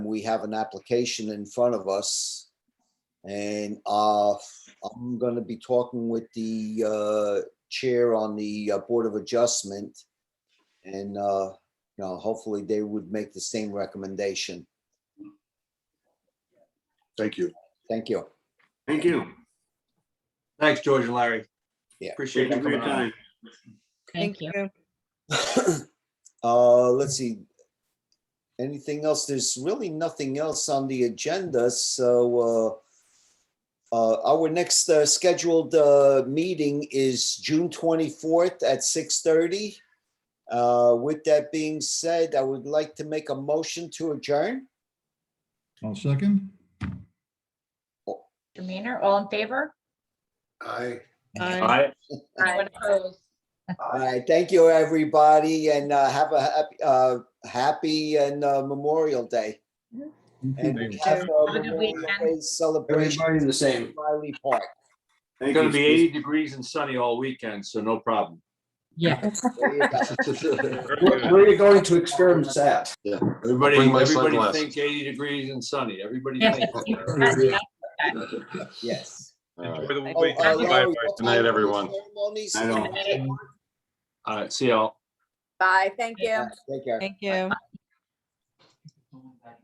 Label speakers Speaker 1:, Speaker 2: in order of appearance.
Speaker 1: we have an application in front of us. And uh, I'm going to be talking with the uh, chair on the uh, Board of Adjustment. And, uh, you know, hopefully they would make the same recommendation.
Speaker 2: Thank you.
Speaker 1: Thank you.
Speaker 3: Thank you.
Speaker 4: Thanks, George and Larry.
Speaker 1: Yeah.
Speaker 4: Appreciate
Speaker 3: Thank
Speaker 4: you
Speaker 3: you for your
Speaker 4: coming on.
Speaker 3: time.
Speaker 5: Thank you.
Speaker 1: Uh, let's see. Anything else? There's really nothing else on the agenda, so, uh, uh, our next, uh, scheduled, uh, meeting is June twenty-fourth at six thirty. Uh, with that being said, I would like to make a motion to adjourn.
Speaker 6: I'll second.
Speaker 5: Demeanor, all in favor?
Speaker 2: Aye.
Speaker 4: All right.
Speaker 5: Anyone opposed?
Speaker 1: All right, thank you, everybody, and, uh, have a happy, uh, happy and, uh, Memorial Day. And we have, uh,
Speaker 5: Have a good
Speaker 1: Memorial
Speaker 5: weekend.
Speaker 1: Day celebration
Speaker 7: Everybody's the same.
Speaker 1: in Riley Park.
Speaker 3: Thank
Speaker 4: It's
Speaker 3: you.
Speaker 4: gonna be eighty degrees and sunny all weekend, so no problem.
Speaker 5: Yeah.
Speaker 1: There you go.
Speaker 7: Where where are you going to experiment at?
Speaker 2: Yeah.
Speaker 4: Everybody,
Speaker 2: Bring my
Speaker 4: everybody
Speaker 2: sunglasses.
Speaker 4: thinks eighty degrees and sunny. Everybody
Speaker 5: Yeah.
Speaker 4: thinks.
Speaker 1: Yes.
Speaker 2: All right.
Speaker 8: Enjoy the
Speaker 1: Oh, uh,
Speaker 8: weekend. Bye,
Speaker 1: Larry,
Speaker 8: bye.
Speaker 1: what
Speaker 2: Good night,
Speaker 1: time are the
Speaker 2: everyone.
Speaker 1: ceremonies?
Speaker 3: I don't-
Speaker 4: All right, see y'all.
Speaker 9: Bye, thank you.
Speaker 1: Take care.
Speaker 5: Thank you.